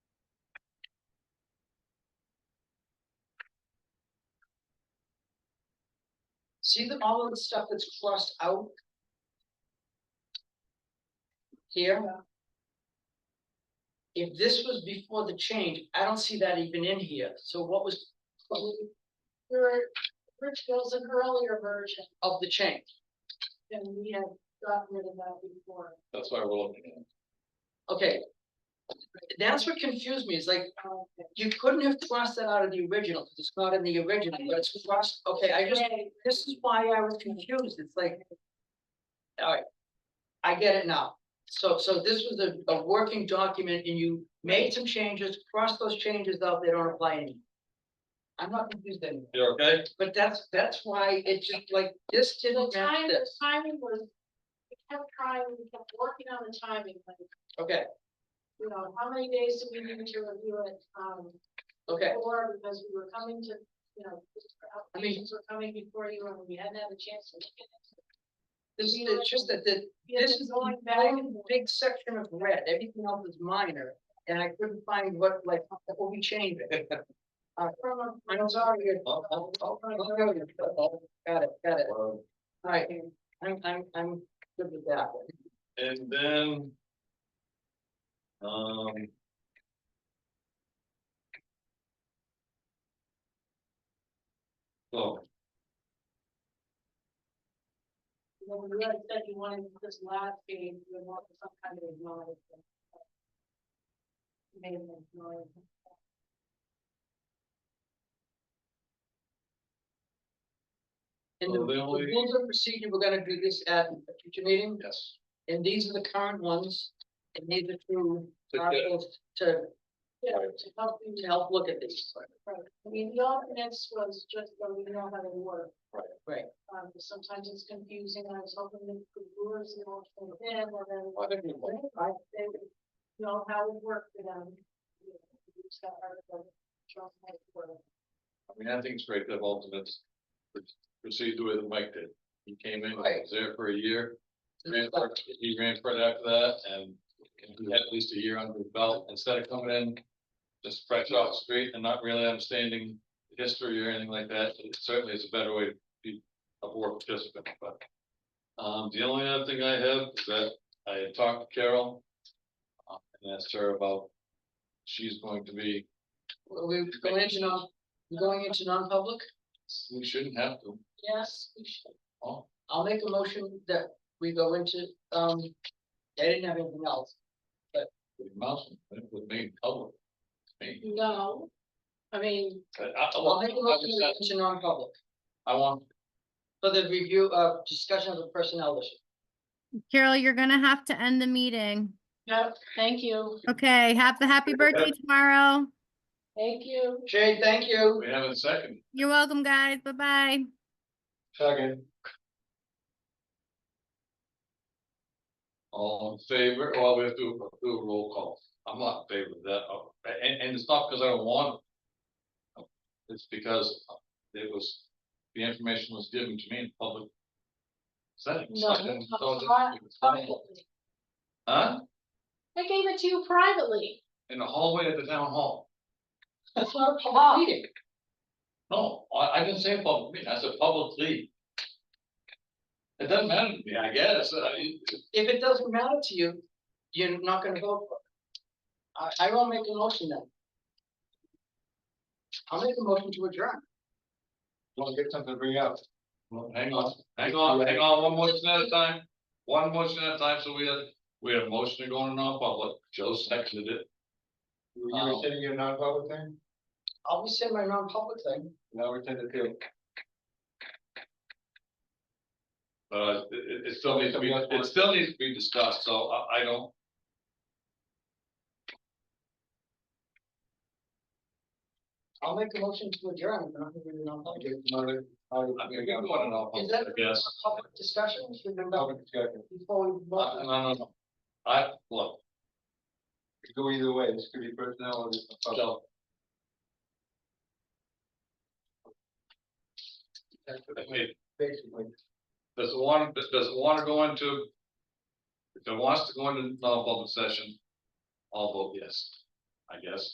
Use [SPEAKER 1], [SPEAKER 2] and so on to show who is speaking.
[SPEAKER 1] See the, all of the stuff that's crossed out? Here? If this was before the change, I don't see that even in here, so what was
[SPEAKER 2] There, Rich was an earlier version,
[SPEAKER 1] of the change?
[SPEAKER 2] and we had gotten rid of that before.
[SPEAKER 3] That's why we're looking at. it.
[SPEAKER 1] Okay. That's what confused me, is like,
[SPEAKER 2] Um,
[SPEAKER 1] you couldn't have crossed that out of the original, because it's not in the original, but it's crossed, okay, I just,
[SPEAKER 2] today,
[SPEAKER 1] this is why I was confused, it's like. Alright, I get it now, so, so this was a, a working document and you made some changes, crossed those changes out, they don't apply anymore. I'm not confused anymore,
[SPEAKER 3] You okay?
[SPEAKER 1] but that's, that's why it just like, this
[SPEAKER 2] The
[SPEAKER 1] didn't match
[SPEAKER 2] time, the
[SPEAKER 1] this,
[SPEAKER 2] timing was, we kept trying, we kept working on the timing, like,
[SPEAKER 1] okay,
[SPEAKER 2] you know, how many days do we need to review it, um,
[SPEAKER 1] okay,
[SPEAKER 2] before, because we were coming to, you know,
[SPEAKER 1] I mean-
[SPEAKER 2] applications were coming before you, and we hadn't had a chance to. look at it.
[SPEAKER 1] this, it's just that the,
[SPEAKER 2] We had
[SPEAKER 1] This
[SPEAKER 2] been
[SPEAKER 1] is the
[SPEAKER 2] going back and
[SPEAKER 1] one
[SPEAKER 2] forth.
[SPEAKER 1] big section of red, everything else is minor, and I couldn't find what, like, what we changed it. Uh, from, a- I'm sorry. it-
[SPEAKER 3] I'll- I'll- I'll-
[SPEAKER 1] Got it, got it,
[SPEAKER 3] Um,
[SPEAKER 1] alright, I'm, I'm, I'm good with that one.
[SPEAKER 3] And then. Um. So,
[SPEAKER 2] When you had said you wanted this last page, you wanted some kind of acknowledgement. Made an acknowledgement.
[SPEAKER 1] And the
[SPEAKER 3] Well, they
[SPEAKER 1] the
[SPEAKER 3] only-
[SPEAKER 1] rules of procedure, we're gonna do this at a future meeting,
[SPEAKER 3] yes,
[SPEAKER 1] and these are the current ones, and these are two
[SPEAKER 3] To get-
[SPEAKER 1] articles to,
[SPEAKER 2] Yeah, to help you
[SPEAKER 1] to help look at these.
[SPEAKER 2] Right, I mean, the alternates was just so we know how they work.
[SPEAKER 3] Right.
[SPEAKER 1] Right.
[SPEAKER 2] Um, sometimes it's confusing, I was hoping that the brewers, you know, came in, and then.
[SPEAKER 3] I think we want-
[SPEAKER 2] Right, They would know how it worked for them. you know, we just got our, like, trust my word.
[SPEAKER 3] I mean, I think it's great to have alternates. pr- Proceed the way that Mike did. He came in, he
[SPEAKER 1] Right.
[SPEAKER 3] was there for a year, ran for, he ran for it after that, and he had at least a year under his belt, instead of coming in. Just fresh off the street and not really understanding the history or anything like that, it certainly is a better way to be a board participant, but. Um, the only other thing I have is that I had talked to Carol. uh, And asked her about, she's going to be,
[SPEAKER 1] We're going into non, going into non-public?
[SPEAKER 3] we shouldn't have to,
[SPEAKER 2] Yes, we should.
[SPEAKER 3] oh,
[SPEAKER 1] I'll make a motion that we go into, um, I didn't have anything else.
[SPEAKER 3] with Mouse, with me in public. Me,
[SPEAKER 2] No, I mean,
[SPEAKER 3] I, I, I
[SPEAKER 1] I'll make a
[SPEAKER 3] want- I
[SPEAKER 1] motion
[SPEAKER 3] just
[SPEAKER 1] to go
[SPEAKER 3] said-
[SPEAKER 1] into non-public
[SPEAKER 3] I want,
[SPEAKER 1] for the review of discussion of the personnel issue.
[SPEAKER 4] Carol, you're gonna have to end the meeting.
[SPEAKER 2] no, thank you,
[SPEAKER 4] Okay, have the happy birthday tomorrow.
[SPEAKER 2] thank you.
[SPEAKER 1] Jay, thank you.
[SPEAKER 3] we have a second.
[SPEAKER 4] You're welcome, guys. Bye-bye.
[SPEAKER 3] Second. All in favor, well, we have to do a roll call, I'm not in favor of that, Oh, and, and it's not because I don't want. it. It's because it was, the information was given to me in public. setting, so I didn't- so I didn't-
[SPEAKER 2] Privately.
[SPEAKER 3] Huh?
[SPEAKER 2] I gave it to you privately.
[SPEAKER 3] In the hallway at the town hall,
[SPEAKER 1] That's
[SPEAKER 2] Oh,
[SPEAKER 1] not a public meeting.
[SPEAKER 3] no, I, I didn't say public meeting, I said publicly. It doesn't matter to me, I guess, I mean,
[SPEAKER 1] If it doesn't matter to you, you're not gonna vote for it. I, I will make a motion then. I'll make a motion to adjourn.
[SPEAKER 3] Want to get something to bring up? Hang on, hang on, hang on, one motion at a time, one motion at a time, so we had, we had a motion to go into non-public, Joe seconded it.
[SPEAKER 5] You were
[SPEAKER 3] Um,
[SPEAKER 5] sending your non-public thing?
[SPEAKER 1] I'll be saying my non-public thing.
[SPEAKER 5] No, we're sending it to.
[SPEAKER 3] But it, uh, it- it still needs to be, it still needs to be discussed, so I, I don't.
[SPEAKER 1] I'll make a motion to adjourn. but I'm not gonna do the
[SPEAKER 5] I
[SPEAKER 1] non-public.
[SPEAKER 5] guess another- I
[SPEAKER 3] I mean, we can go into
[SPEAKER 1] Is
[SPEAKER 3] non-public,
[SPEAKER 1] that
[SPEAKER 3] I guess.
[SPEAKER 1] a public discussion? Should we
[SPEAKER 5] Public discussion.
[SPEAKER 1] before we
[SPEAKER 3] Uh,
[SPEAKER 1] vote?
[SPEAKER 3] No, no, no. I, look,
[SPEAKER 5] It could Go either way, this could be personnel or this. is public.
[SPEAKER 3] Joe.
[SPEAKER 5] That's what it is,
[SPEAKER 3] Hey,
[SPEAKER 5] Basically,
[SPEAKER 3] Does it want, does does it want to go into? If it wants to go into non-public session, I'll vote yes, I guess.